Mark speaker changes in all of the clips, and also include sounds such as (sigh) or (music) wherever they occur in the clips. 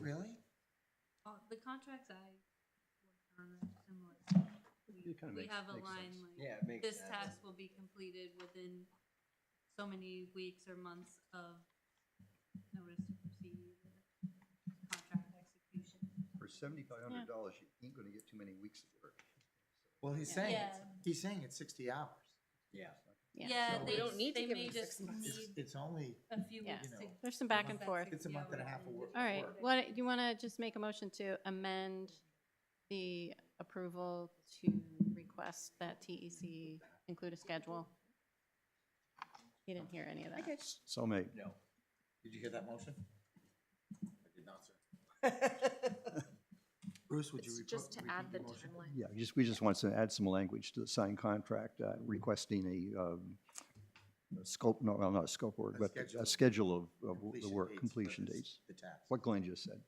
Speaker 1: really?
Speaker 2: All- Oh, The contracts I worked on are similar. We-
Speaker 3: It kinda
Speaker 2: We
Speaker 3: makes-
Speaker 2: have a
Speaker 3: makes
Speaker 2: line
Speaker 3: sense.
Speaker 2: like,
Speaker 1: Yeah, it makes
Speaker 2: this
Speaker 1: sense.
Speaker 2: task will be completed within so many weeks or months of notice to proceed, or contract execution.
Speaker 3: For seventy-five hundred dollars, you ain't gonna get too many weeks of work.
Speaker 1: Well, he's
Speaker 4: Yeah.
Speaker 1: saying,
Speaker 2: Yeah.
Speaker 1: it's- he's saying it's sixty hours.
Speaker 3: Yeah.
Speaker 2: Yeah,
Speaker 1: So
Speaker 2: they,
Speaker 1: we
Speaker 4: don't need to
Speaker 2: they
Speaker 4: give
Speaker 2: may
Speaker 4: them
Speaker 2: just
Speaker 4: six months.
Speaker 1: It's,
Speaker 2: need
Speaker 1: it's only,
Speaker 2: a few
Speaker 4: Yeah.
Speaker 2: weeks
Speaker 1: You
Speaker 2: to.
Speaker 1: know,
Speaker 5: There's some back and
Speaker 1: It's a
Speaker 5: forth.
Speaker 1: It's a month and a half of work.
Speaker 4: All right,
Speaker 1: work.
Speaker 5: What, you want to just make a motion to amend the approval to request that TEC include a schedule? You didn't hear any of that.
Speaker 4: Okay.
Speaker 3: So mate.
Speaker 1: No. Did you hear that motion? I did not, sir. (laughs) Bruce, would you
Speaker 4: It's
Speaker 1: repo- repeat
Speaker 4: just to add the
Speaker 1: your motion?
Speaker 4: timeline.
Speaker 3: Yeah, just, we just want to add some language to the signed contract uh, requesting a um, a scope, no, well, not a scope work,
Speaker 1: A
Speaker 3: but
Speaker 1: schedule
Speaker 3: a
Speaker 1: of
Speaker 3: schedule of, of Uh, the
Speaker 1: Completion
Speaker 3: work,
Speaker 1: dates for
Speaker 3: completion
Speaker 1: this-
Speaker 3: dates.
Speaker 1: The task.
Speaker 3: What Glenn just said.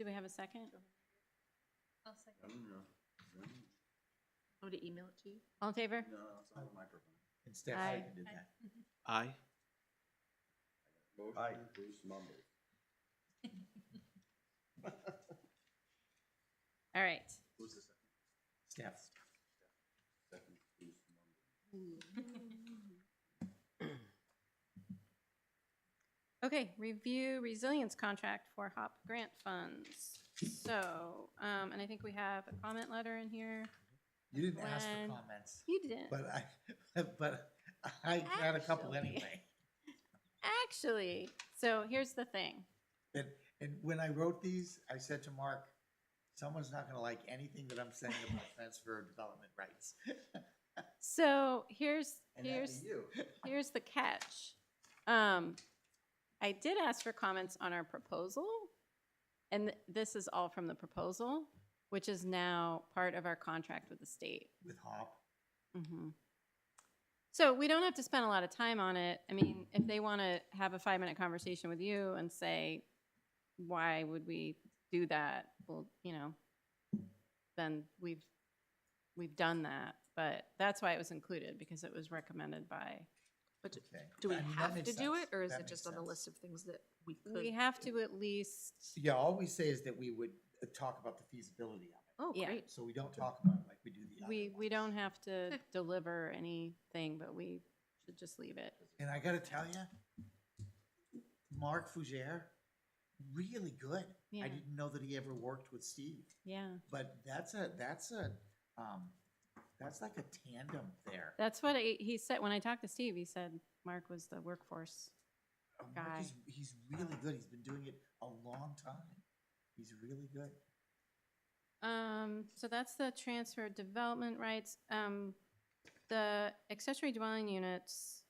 Speaker 5: Do we have a second?
Speaker 2: I'll second.
Speaker 4: Oh, to email it to you?
Speaker 5: All in favor?
Speaker 1: Instead,
Speaker 5: Aye.
Speaker 1: I did that.
Speaker 6: Aye.
Speaker 3: Aye.
Speaker 5: All right.
Speaker 1: Staff. Um,
Speaker 2: (laughs)
Speaker 5: Okay, review resilience contract for HOP grant funds. So, um, and I think we have a comment letter in here.
Speaker 1: You didn't ask for
Speaker 5: When-
Speaker 1: comments,
Speaker 5: You didn't.
Speaker 1: but I, (laughs) but I had a couple
Speaker 5: Actually.
Speaker 1: anyway.
Speaker 5: Actually, so here's the thing.
Speaker 1: And, and when I wrote these, I said to Mark, someone's not gonna like anything that I'm saying about transfer of development rights.
Speaker 5: So here's,
Speaker 1: And that'd
Speaker 5: here's
Speaker 1: be you.
Speaker 5: Here's the catch. Um, I did ask for comments on our proposal, and th- this is all from the proposal, which is now part of our contract with the state.
Speaker 1: With Hop.
Speaker 5: Mhm. So we don't have to spend a lot of time on it. I mean, if they want to have a five-minute conversation with you and say, why would we do that? Well, you know, then we've, we've done that. But that's why it was included, because it was recommended by
Speaker 4: But do-
Speaker 1: Okay.
Speaker 4: do we
Speaker 1: I mean, that
Speaker 4: have
Speaker 1: makes
Speaker 4: to do
Speaker 1: sense.
Speaker 4: it, or is
Speaker 1: That
Speaker 4: it
Speaker 1: makes
Speaker 4: just on the
Speaker 1: sense.
Speaker 4: list of things that we could?
Speaker 5: We have to at least,
Speaker 1: Yeah, all we say is that we would uh, talk about the feasibility of
Speaker 4: Oh,
Speaker 5: Yeah.
Speaker 4: great.
Speaker 1: it. So we don't talk about it like we do the other
Speaker 5: we, we
Speaker 1: ones.
Speaker 5: don't have to deliver anything, but we should just leave it.
Speaker 1: And I gotta tell you, Mark Fougere, really good.
Speaker 5: Yeah,
Speaker 1: I didn't know that he ever worked with Steve,
Speaker 5: yeah.
Speaker 1: but that's a, that's a, um, that's like a tandem there.
Speaker 5: That's what he he said, when I talked to Steve, he said Mark was the workforce.
Speaker 1: Uh, Mark
Speaker 5: guy.
Speaker 1: is- He's really good. He's been doing it a long time. He's really good.
Speaker 5: Um, so that's the transfer of development rights. Um, the accessory dwelling units.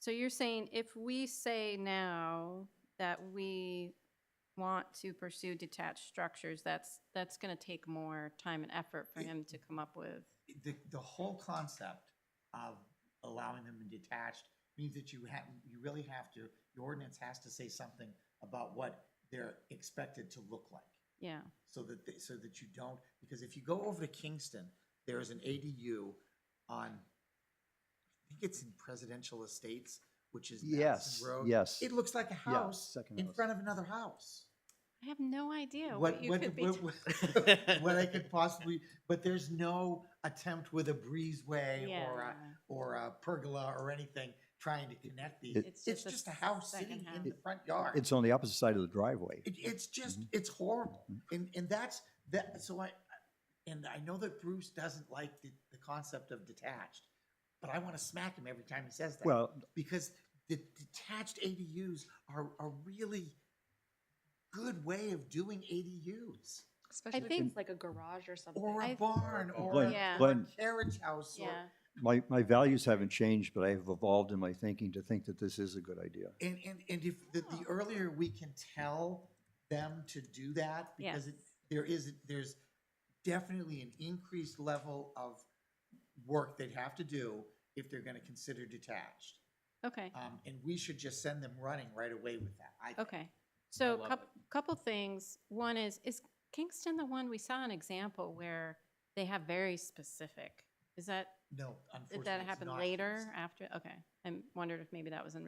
Speaker 5: So you're saying if we say now that we want to pursue detached structures, that's, that's gonna take more time and effort for him to come up with.
Speaker 1: The, the whole concept of allowing them in detached means that you have, you really have to, your ordinance has to say something about what they're expected to look like.
Speaker 5: Yeah,
Speaker 1: so that they, so that you don't because if you go over to Kingston, there is an ADU on I think it's in Presidential Estates, which is Madison
Speaker 3: Yes,
Speaker 1: Road.
Speaker 3: yes.
Speaker 1: It looks like a
Speaker 3: Yeah,
Speaker 1: house
Speaker 3: second
Speaker 1: in
Speaker 3: house.
Speaker 1: front of another house.
Speaker 5: I have no idea
Speaker 1: what
Speaker 5: what you
Speaker 1: what,
Speaker 5: could be.
Speaker 1: what,
Speaker 5: t- (laughs)
Speaker 1: what- what I could possibly but there's no attempt with a breezeway
Speaker 5: Yeah,
Speaker 1: or a or a pergola or anything trying to connect these.
Speaker 3: It-
Speaker 1: it's,
Speaker 5: It's
Speaker 1: just,
Speaker 5: just a
Speaker 1: a house
Speaker 5: second
Speaker 1: sitting in
Speaker 5: house.
Speaker 1: the front yard.
Speaker 3: It's on the opposite side of the driveway.
Speaker 1: It, it's just,
Speaker 3: Mhm.
Speaker 1: it's horrible.
Speaker 3: Mhm.
Speaker 1: And, and that's, that, so I, and I know that Bruce doesn't like the, the concept of detached, but I want to smack him every time he says that.
Speaker 3: Well,
Speaker 1: Because the detached ADUs are a really good way of doing ADUs.
Speaker 4: Especially if
Speaker 5: think-
Speaker 4: it's like a garage or something.
Speaker 1: Or a
Speaker 5: I-
Speaker 1: barn, or
Speaker 3: Glenn,
Speaker 1: a
Speaker 5: Yeah.
Speaker 3: Glenn,
Speaker 1: carriage house, or,
Speaker 5: Yeah.
Speaker 3: my, my values haven't changed, but I have evolved in my thinking to think that this is a good idea.
Speaker 1: and, and, and if, the, the earlier we can tell them to do that, because it, there is, there's definitely an increased level of work they'd have to do if they're gonna consider detached.
Speaker 5: Okay.
Speaker 1: Um, and we should just send them running right away with that. I think.
Speaker 5: Okay, so
Speaker 6: love
Speaker 5: coup couple things. One is, is Kingston the one, we saw an example where they have very specific, is that,
Speaker 1: No,
Speaker 5: did
Speaker 1: unfortunately.
Speaker 5: that
Speaker 1: it's
Speaker 5: happen
Speaker 1: not
Speaker 5: later,
Speaker 1: Kingston.
Speaker 5: after? Okay, I wondered if maybe that was in